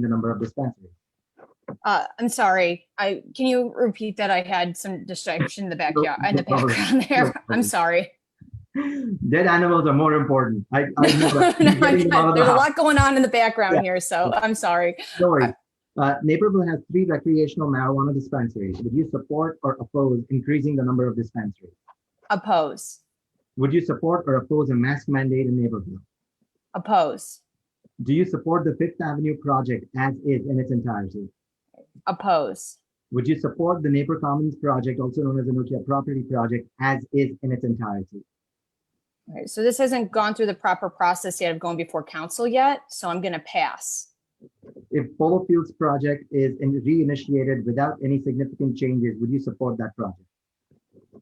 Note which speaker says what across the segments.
Speaker 1: the number of dispensaries.
Speaker 2: Uh, I'm sorry, I, can you repeat that? I had some distraction in the backyard, in the
Speaker 1: no problem.
Speaker 2: background
Speaker 1: No
Speaker 2: there.
Speaker 1: problem.
Speaker 2: I'm sorry.
Speaker 1: Dead animals are more important. I, I know
Speaker 2: No,
Speaker 1: that.
Speaker 2: I'm
Speaker 1: I'm getting them out
Speaker 2: not-
Speaker 1: of the
Speaker 2: There's a
Speaker 1: house.
Speaker 2: lot going on in the background
Speaker 1: Yeah.
Speaker 2: here, so I'm sorry.
Speaker 1: Don't worry. Uh, Naperville has three recreational marijuana dispensaries. Would you support or oppose increasing the number of dispensaries?
Speaker 2: Oppose,
Speaker 1: Would you support or oppose a mask mandate in Naperville?
Speaker 2: oppose,
Speaker 1: Do you support the Fifth Avenue project as is in its entirety?
Speaker 2: oppose,
Speaker 1: Would you support the Napier Commons project, also known as the Nokia property project, as is in its entirety?
Speaker 2: All right, so this hasn't gone through the proper process yet of going before council yet, so I'm gonna pass.
Speaker 1: If Polo Fields project is in- reinitiated without any significant changes, would you support that project?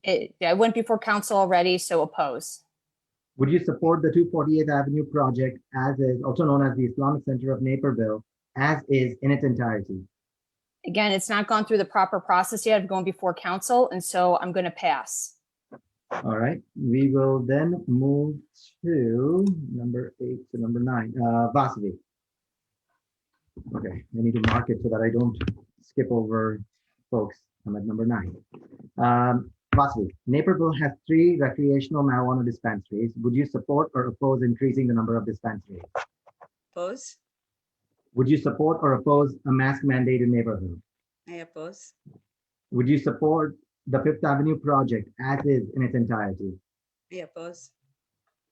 Speaker 2: It, I went before council already, so oppose,
Speaker 1: Would you support the 248th Avenue project as is, also known as the Islamic Center of Naperville, as is in its entirety?
Speaker 2: Again, it's not gone through the proper process yet of going before council, and so I'm gonna pass.
Speaker 1: All right, we will then move to number eight to number nine, uh, Vasavi. Okay, I need to mark it so that I don't skip over folks. I'm at number nine. Um, Vasavi, Naperville has three recreational marijuana dispensaries. Would you support or oppose increasing the number of dispensaries?
Speaker 3: Oppose?
Speaker 1: Would you support or oppose a mask mandate in Naperville?
Speaker 3: I oppose.
Speaker 1: Would you support the Fifth Avenue project as is in its entirety?
Speaker 3: I oppose.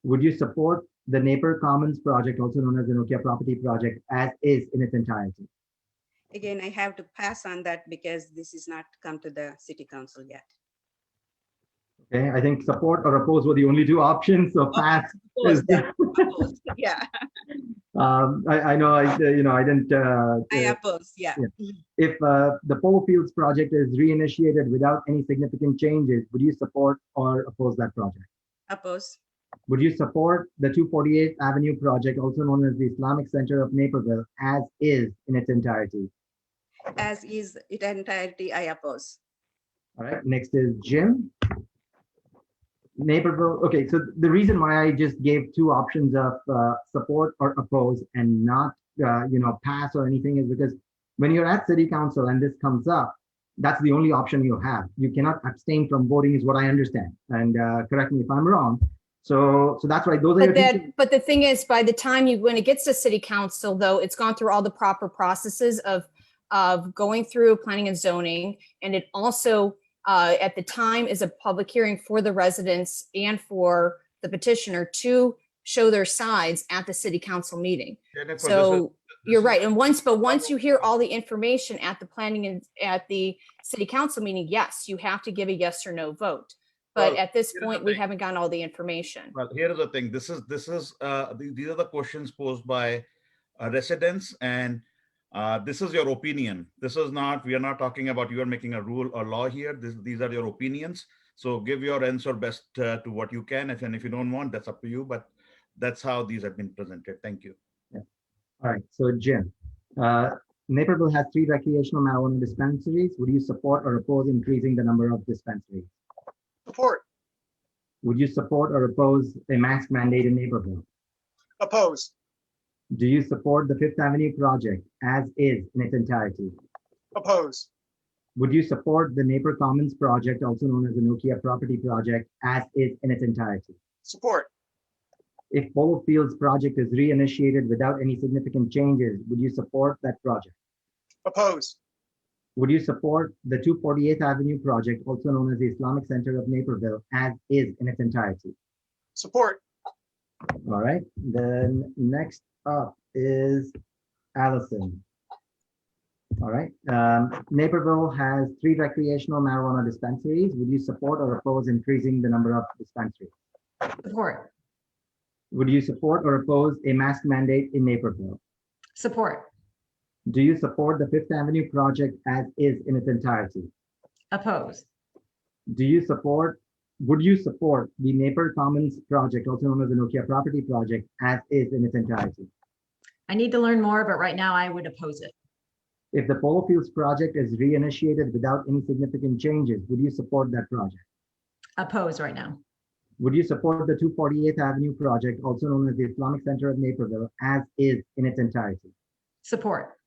Speaker 1: Would you support the Napier Commons project, also known as the Nokia property project, as is in its entirety?
Speaker 3: Again, I have to pass on that because this is not come to the city council yet.
Speaker 1: Okay, I think support or oppose were the only two options, so pass.
Speaker 3: Oppose,
Speaker 1: is-
Speaker 3: yeah, oppose, Yeah,
Speaker 1: Um, I, I know, I, you know, I didn't, uh,
Speaker 3: I
Speaker 1: uh,
Speaker 3: oppose, yeah.
Speaker 1: if, uh, the Polo Fields project is reinitiated without any significant changes, would you support or oppose that project?
Speaker 3: Oppose,
Speaker 1: Would you support the 248th Avenue project, also known as the Islamic Center of Naperville, as is in its entirety?
Speaker 3: as is it entirety, I oppose.
Speaker 1: All right, next is Jim. Naperville, okay, so the reason why I just gave two options of uh, support or oppose and not, uh, you know, pass or anything is because when you're at city council and this comes up, that's the only option you have. You cannot abstain from voting is what I understand. And uh, correct me if I'm wrong. So, so that's right. Those are your
Speaker 2: But
Speaker 1: two
Speaker 2: that, but the thing is, by the time you, when it gets to city council, though, it's gone through all the proper processes of, of going through planning and zoning. And it also, uh, at the time is a public hearing for the residents and for the petitioner to show their sides at the city council meeting.
Speaker 4: Jennifer, this is-
Speaker 2: So
Speaker 4: this
Speaker 2: you're
Speaker 4: is-
Speaker 2: right. And once, but once you hear all the information at the planning and at the city council meeting, yes, you have to give a yes or no vote. But
Speaker 4: Well,
Speaker 2: at this
Speaker 4: here's the
Speaker 2: point, we
Speaker 4: thing.
Speaker 2: haven't gotten all the information.
Speaker 4: Well, here is the thing, this is, this is, uh, the- these are the questions posed by uh, residents and uh, this is your opinion. This is not, we are not talking about you are making a rule or law here. This, these are your opinions. So give your answer best uh, to what you can. If, and if you don't want, that's up to you, but that's how these have been presented. Thank you.
Speaker 1: All right, so Jim, uh, Naperville has three recreational marijuana dispensaries. Would you support or oppose increasing the number of dispensaries?
Speaker 5: Support,
Speaker 1: Would you support or oppose a mask mandate in Naperville?
Speaker 5: oppose,
Speaker 1: Do you support the Fifth Avenue project as is in its entirety?
Speaker 5: oppose,
Speaker 1: Would you support the Napier Commons project, also known as the Nokia property project, as is in its entirety?
Speaker 5: support,
Speaker 1: If Polo Fields project is reinitiated without any significant changes, would you support that project?
Speaker 5: oppose,
Speaker 1: Would you support the 248th Avenue project, also known as the Islamic Center of Naperville, as is in its entirety?
Speaker 5: support,
Speaker 1: All right, then next up is Allison. All right, um, Naperville has three recreational marijuana dispensaries. Would you support or oppose increasing the number of dispensaries?
Speaker 6: Support,
Speaker 1: Would you support or oppose a mask mandate in Naperville?
Speaker 6: support,
Speaker 1: Do you support the Fifth Avenue project as is in its entirety?
Speaker 6: oppose,
Speaker 1: Do you support, would you support the Napier Commons project, also known as the Nokia property project, as is in its entirety?
Speaker 6: I need to learn more, but right now I would oppose it,
Speaker 1: If the Polo Fields project is reinitiated without any significant changes, would you support that project?
Speaker 6: oppose right now,
Speaker 1: Would you support the 248th Avenue project, also known as the Islamic Center of Naperville, as is in its entirety?
Speaker 6: support,